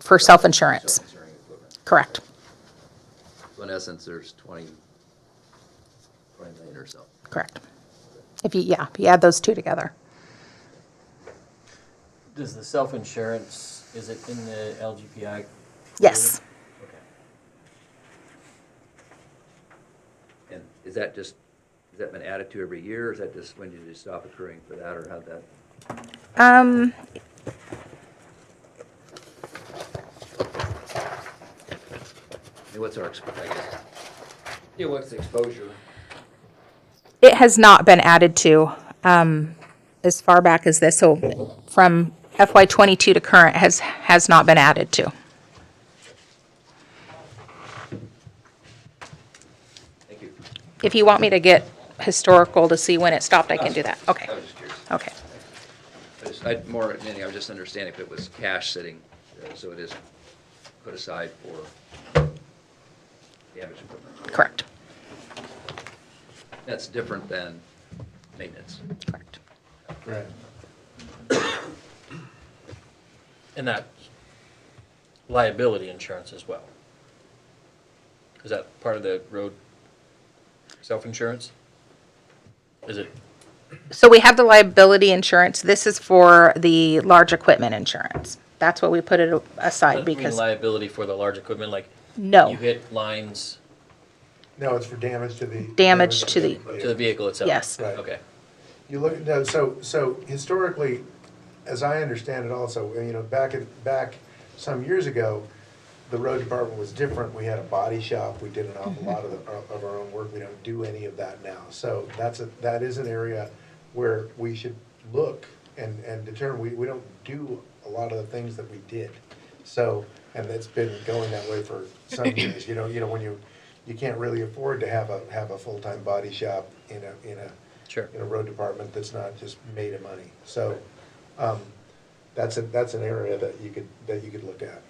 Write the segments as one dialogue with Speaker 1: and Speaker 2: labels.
Speaker 1: for self-insurance. Correct.
Speaker 2: So in essence, there's 20, 20 million or so.
Speaker 1: Correct. If you, yeah, if you add those two together.
Speaker 3: Does the self-insurance, is it in the LGPI?
Speaker 1: Yes.
Speaker 3: Okay.
Speaker 2: And is that just, has that been added to every year, or is that just when did you stop accruing for that, or how that?
Speaker 1: Um,
Speaker 2: I mean, what's our, exp- I guess, yeah, what's the exposure?
Speaker 1: It has not been added to um, as far back as this, so from FY '22 to current has, has not been added to.
Speaker 2: Thank you.
Speaker 1: If you want me to get historical to see when it stopped, I can do that. Okay,
Speaker 2: I was just curious.
Speaker 1: okay.
Speaker 2: I just- I, more than anything, I was just understanding if it was cash sitting, uh, so it is put aside for damage equipment.
Speaker 1: Correct,
Speaker 2: That's different than maintenance.
Speaker 1: correct.
Speaker 3: Right. And that liability insurance as well? Is that part of the road self-insurance? Is it,
Speaker 1: So we have the liability insurance. This is for the large equipment insurance. That's what we put it aside
Speaker 3: does it mean
Speaker 1: because,
Speaker 3: liability for the large equipment, like?
Speaker 1: No.
Speaker 3: You hit lines
Speaker 4: No, it's for damage to the.
Speaker 1: Damage to the-
Speaker 3: to the vehicle itself?
Speaker 1: Yes.
Speaker 4: Right.
Speaker 3: Okay.
Speaker 4: You look, no, so, so historically, as I understand it also, you know, back, in- back some years ago, the road department was different. We had a body shop. We did an awful lot of, the- uh, of our own work. We don't do any of that now. So that's a, that is an area where we should look and, and determine, we, we don't do a lot of the things that we did. So, and it's been going that way for some years, you know, you know, when you, you can't really afford to have a, have a full-time body shop in a, in a,
Speaker 3: Sure.
Speaker 4: in a road department that's not just made of money. So, um, that's a, that's an area that you could, that you could look at.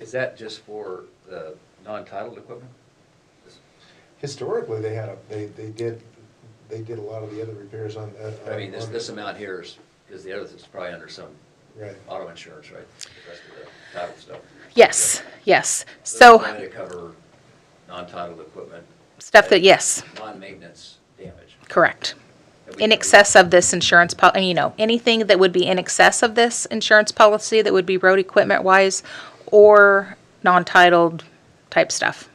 Speaker 2: Is that just for the non-titled equipment?
Speaker 4: Historically, they had a, they, they did, they did a lot of the other repairs on. uh,
Speaker 2: I mean, this,
Speaker 4: on-
Speaker 2: this amount here is, because the other is probably under some
Speaker 4: Right.
Speaker 2: auto insurance, right? The rest of the title stuff.
Speaker 1: yes, yes.
Speaker 2: it's
Speaker 1: So
Speaker 2: Trying to cover non-titled equipment,
Speaker 1: stuff that, yes,
Speaker 2: non-maintenance damage.
Speaker 1: correct.
Speaker 2: that we
Speaker 1: in
Speaker 2: cover.
Speaker 1: excess of this insurance, pol- you know, anything that would be in excess of this insurance policy that would be road equipment wise or non-titled type stuff.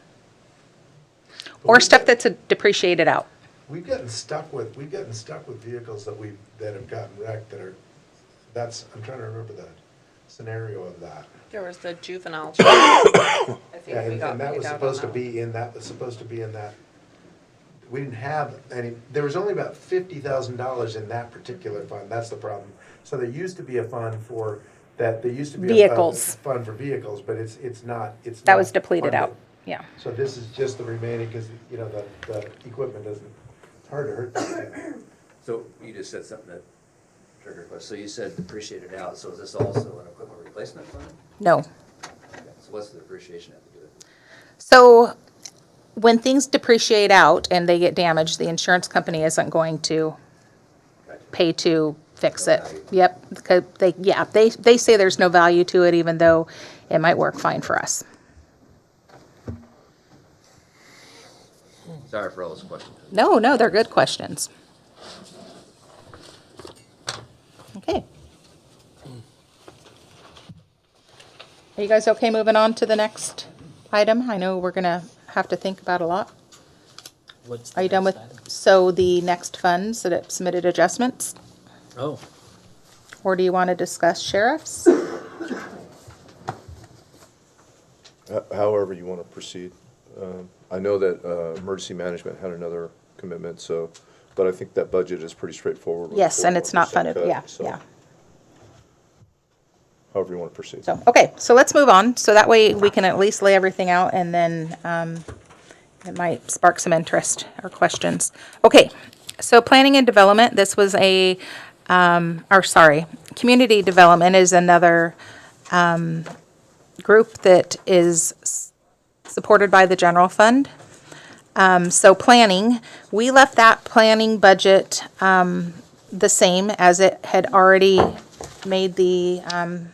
Speaker 1: Or stuff that's uh, depreciated out.
Speaker 4: We've gotten stuck with, we've gotten stuck with vehicles that we, that have gotten wrecked that are, that's, I'm trying to remember the scenario of that.
Speaker 5: There was the juvenile. I think
Speaker 4: Yeah,
Speaker 5: we
Speaker 4: and
Speaker 5: got
Speaker 4: and that
Speaker 5: beat
Speaker 4: was
Speaker 5: out on
Speaker 4: supposed to
Speaker 5: one.
Speaker 4: be in that, was supposed to be in that. We didn't have any, there was only about fifty thousand dollars in that particular fund, that's the problem. So there used to be a fund for, that, there used to be. a fund-
Speaker 1: Vehicles.
Speaker 4: Fund for vehicles, but it's, it's not, it's.
Speaker 1: That
Speaker 4: not
Speaker 1: was depleted out.
Speaker 4: funded.
Speaker 1: Yeah.
Speaker 4: So this is just the remaining, because, you know, the, the equipment doesn't, it's hard to hurt. that.
Speaker 2: So you just said something that triggered a question. So you said depreciated out, so is this also an equipment replacement fund?
Speaker 1: No.
Speaker 2: So what's the depreciation have to do with it?
Speaker 1: So when things depreciate out and they get damaged, the insurance company isn't going to
Speaker 2: Gotcha.
Speaker 1: pay to fix
Speaker 2: No
Speaker 1: it.
Speaker 2: value.
Speaker 1: Yep. 'cause They, yeah, they, they say there's no value to it, even though it might work fine for us.
Speaker 2: Sorry for all those questions.
Speaker 1: No, no, they're good questions. Okay. Are you guys okay moving on to the next item? I know we're gonna have to think about a lot.
Speaker 3: What's the
Speaker 1: Are you done with,
Speaker 3: next item?
Speaker 1: so the next funds that have submitted adjustments?
Speaker 3: Oh,
Speaker 1: Or do you want to discuss sheriffs?
Speaker 6: Ho- however you want to proceed. Um, I know that uh, emergency management had another commitment, so, but I think that budget is pretty straightforward. with a
Speaker 1: Yes, and it's not
Speaker 6: 41%
Speaker 1: funded, yeah,
Speaker 6: cut, so
Speaker 1: yeah.
Speaker 6: However you want to proceed.
Speaker 1: So, okay, so let's move on. So that way we can at least lay everything out and then um, it might spark some interest or questions. Okay, so planning and development, this was a, um, or sorry, community development is another um, group that is s- supported by the general fund. Um, So planning, we left that planning budget um, the same as it had already made the um,